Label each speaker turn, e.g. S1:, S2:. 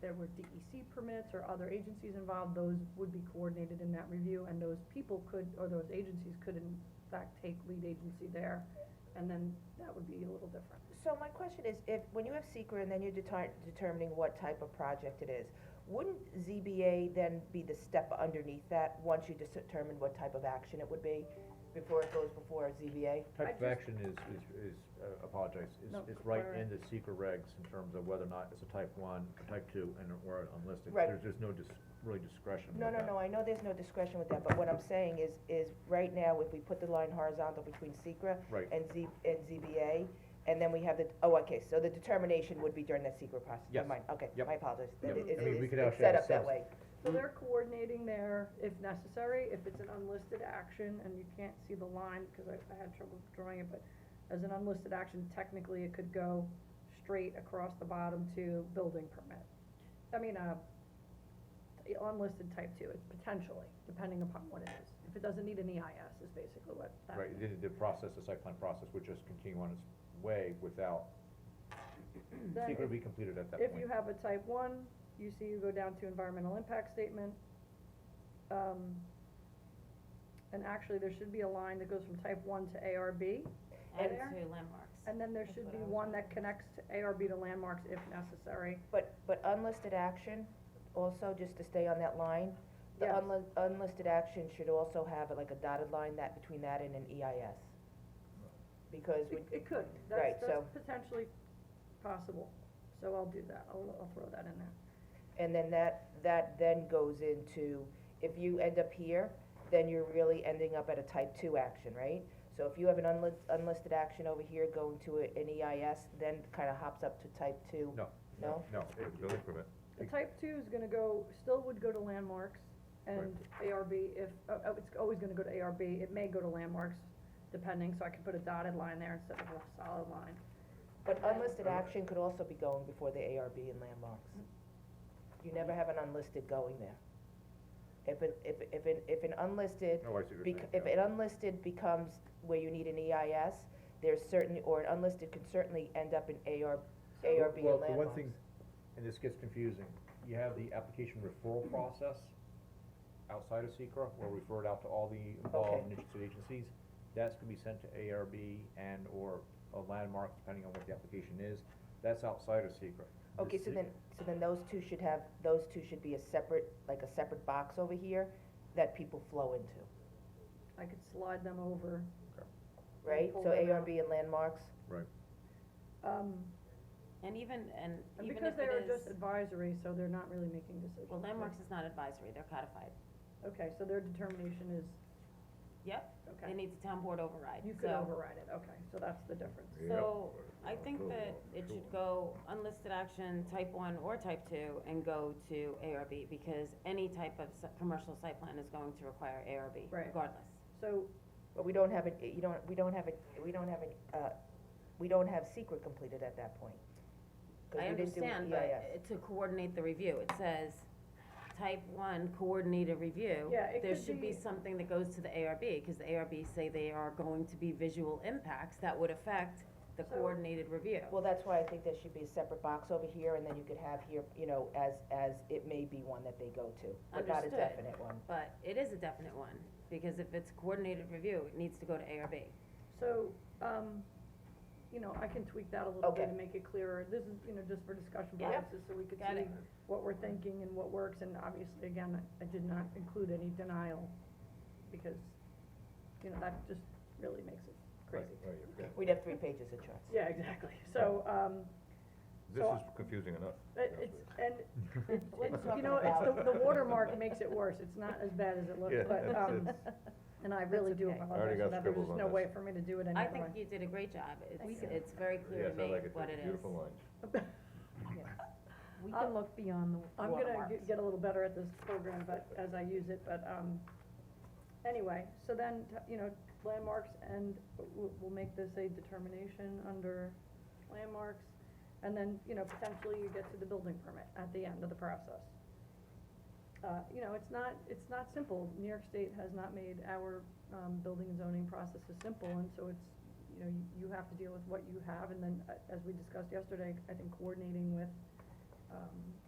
S1: there were DEC permits or other agencies involved, those would be coordinated in that review, and those people could, or those agencies could in fact take lead agency there, and then that would be a little different.
S2: So my question is, if, when you have secret and then you're deter- determining what type of project it is, wouldn't ZBA then be the step underneath that, once you dis- determine what type of action it would be, before it goes before
S1: I
S2: ZBA?
S3: Type of
S1: just-
S3: action is, is, is, uh, apologize, is,
S1: No,
S3: is right
S1: alright.
S3: in the secret regs in terms of whether or not it's a type one, a type two, and or unlisted.
S2: Right.
S3: There's, there's no dis, really discretion
S2: No,
S3: with
S2: no,
S3: that.
S2: no, I know there's no discretion with that, but what I'm saying is, is right now, if we put the line horizontal between secret
S3: Right.
S2: and Z, and ZBA, and then we have the, oh, okay, so the determination would be during that secret process,
S3: Yes.
S2: never mind, okay,
S3: Yep.
S2: my apologies.
S3: Yep.
S2: It- it-
S3: I mean, we
S2: it's-
S3: could
S2: it's
S3: actually
S2: set
S3: have
S2: up that
S3: subs-
S2: way.
S1: So they're coordinating there if necessary, if it's an unlisted action, and you can't see the line, cause I, I had trouble drawing it, but as an unlisted action, technically it could go straight across the bottom to building permit. I mean, uh, unlisted type two, it- potentially, depending upon what it is. If it doesn't need an EIS is basically what that.
S3: Right, the, the process, the site plan process would just continue on its way without,
S1: Then
S3: secret would be completed at that
S1: If
S3: point.
S1: you have a type one, you see you go down to environmental impact statement. Um, and actually, there should be a line that goes from type one to ARB,
S4: And
S1: there?
S4: to landmarks.
S1: and then there
S4: That's
S1: should
S4: what
S1: be
S4: I was
S1: one that
S4: wondering.
S1: connects to ARB to landmarks if necessary.
S2: But, but unlisted action, also, just to stay on that line, the
S1: Yes.
S2: unli- unlisted action should also have like a dotted line that, between that and an EIS. Because we,
S1: It, it could, that's,
S2: Right,
S1: that's
S2: so-
S1: potentially possible, so I'll do that, I'll, I'll throw that in there.
S2: and then that, that then goes into, if you end up here, then you're really ending up at a type two action, right? So if you have an unli- unlisted action over here going to a- an EIS, then kinda hops up to type two.
S3: No.
S2: No?
S3: No, it, building permit.
S1: The type two is gonna go, still would go to landmarks and ARB if, oh, oh, it's always gonna go to ARB, it may go to landmarks, depending, so I could put a dotted line there instead of a solid line.
S2: But unlisted action could also be going before the ARB and landmarks. You never have an unlisted going there. If an, if, if an, if an unlisted,
S3: Oh, I see what you're
S2: bec- if
S3: saying, yeah.
S2: an unlisted becomes where you need an EIS, there's certain, or an unlisted could certainly end up in AR, ARB and
S3: Well,
S2: landmarks.
S3: the one thing, and this gets confusing, you have the application referral
S2: Mm-hmm.
S3: process outside of secra where we refer it out to all the involved and interested agencies. That's gonna be sent to ARB and or a landmark, depending on what the application is, that's outside of secra
S2: Okay, so then, so then those two should have, those two should be a separate, like a separate box over here that people flow into,
S1: I could slide them over,
S2: right?
S1: pull
S2: So
S1: them out.
S2: ARB and landmarks,
S3: Right.
S1: um,
S4: And even, and
S1: and
S4: even
S1: because
S4: if
S1: they are
S4: it
S1: just
S4: is,
S1: advisory, so they're not really making decisions.
S4: well, landmarks is not advisory, they're codified.
S1: Okay, so their determination is,
S4: Yep,
S1: okay,
S4: it needs a town board override,
S1: you could
S4: so.
S1: override it, okay, so that's the difference.
S3: Yep.
S4: So, I think that it should go unlisted action, type one or type two, and go to ARB, because any type of s- commercial site plan is going to require ARB,
S1: Right.
S4: regardless.
S1: So,
S2: but we don't have it, you don't, we don't have it, we don't have it, uh, we don't have secret completed at that point. 'Cause
S4: I
S2: we didn't do E
S4: understand,
S2: EIS.
S4: but it- to coordinate the review, it says, type one, coordinated review.
S1: Yeah, it
S4: There
S1: could
S4: should
S1: be-
S4: be something that goes to the ARB, cause the ARB say they are going to be visual impacts that would affect the
S1: So-
S4: coordinated review.
S2: Well, that's why I think there should be a separate box over here, and then you could have here, you know, as, as it may be one that they go to, but not a
S4: Understood.
S2: definite one.
S4: But it is a definite one, because if it's coordinated review, it needs to go to ARB.
S1: So, um, you know, I can tweak that a little bit
S2: Okay.
S1: and make it clearer. This is, you know, just for discussion
S4: Yeah. Yep.
S1: purposes, so we could
S4: Got
S1: see
S4: it.
S1: what we're thinking and what works, and obviously, again, I- I did not include any denial, because, you know, that just really makes it crazy.
S3: Right, yeah.
S2: We'd have three pages of charts.
S1: Yeah, exactly, so, um,
S5: This
S1: So-
S5: is confusing enough.
S1: it- it's, and, it-
S2: What are you
S1: it- you
S2: talking
S1: know, it's, the,
S2: about?
S1: the watermark makes it worse, it's not as bad as it
S5: Yeah,
S1: looks, but,
S5: it's-
S1: um, and I really do
S2: okay. I
S1: apologize,
S5: already
S1: for
S5: got
S1: that. there's
S5: scribbles
S1: just
S5: on
S1: no
S5: this.
S1: way for me to do it any
S4: I
S1: other
S4: think
S1: way.
S4: you did a great job,
S1: Thank
S4: it's,
S1: you.
S4: it's very clear
S5: Yes,
S4: to
S5: I
S4: me
S5: like it,
S4: what
S5: too.
S4: it is.
S5: beautiful lines.
S6: We
S1: Uh,
S6: can look beyond the
S1: I'm gonna
S6: watermarks.
S1: get- get a little better at this program, but, as I use it, but, um, anyway, so then, t- you know, landmarks and we'll, we'll make this a determination under landmarks. And then, you know, potentially you get to the building permit at the end of the process. Uh, you know, it's not, it's not simple. New York State has not made our, um, building and zoning processes simple, and so it's, you know, you, you have to deal with what you have, and then, uh, as we discussed yesterday, I think coordinating with, um,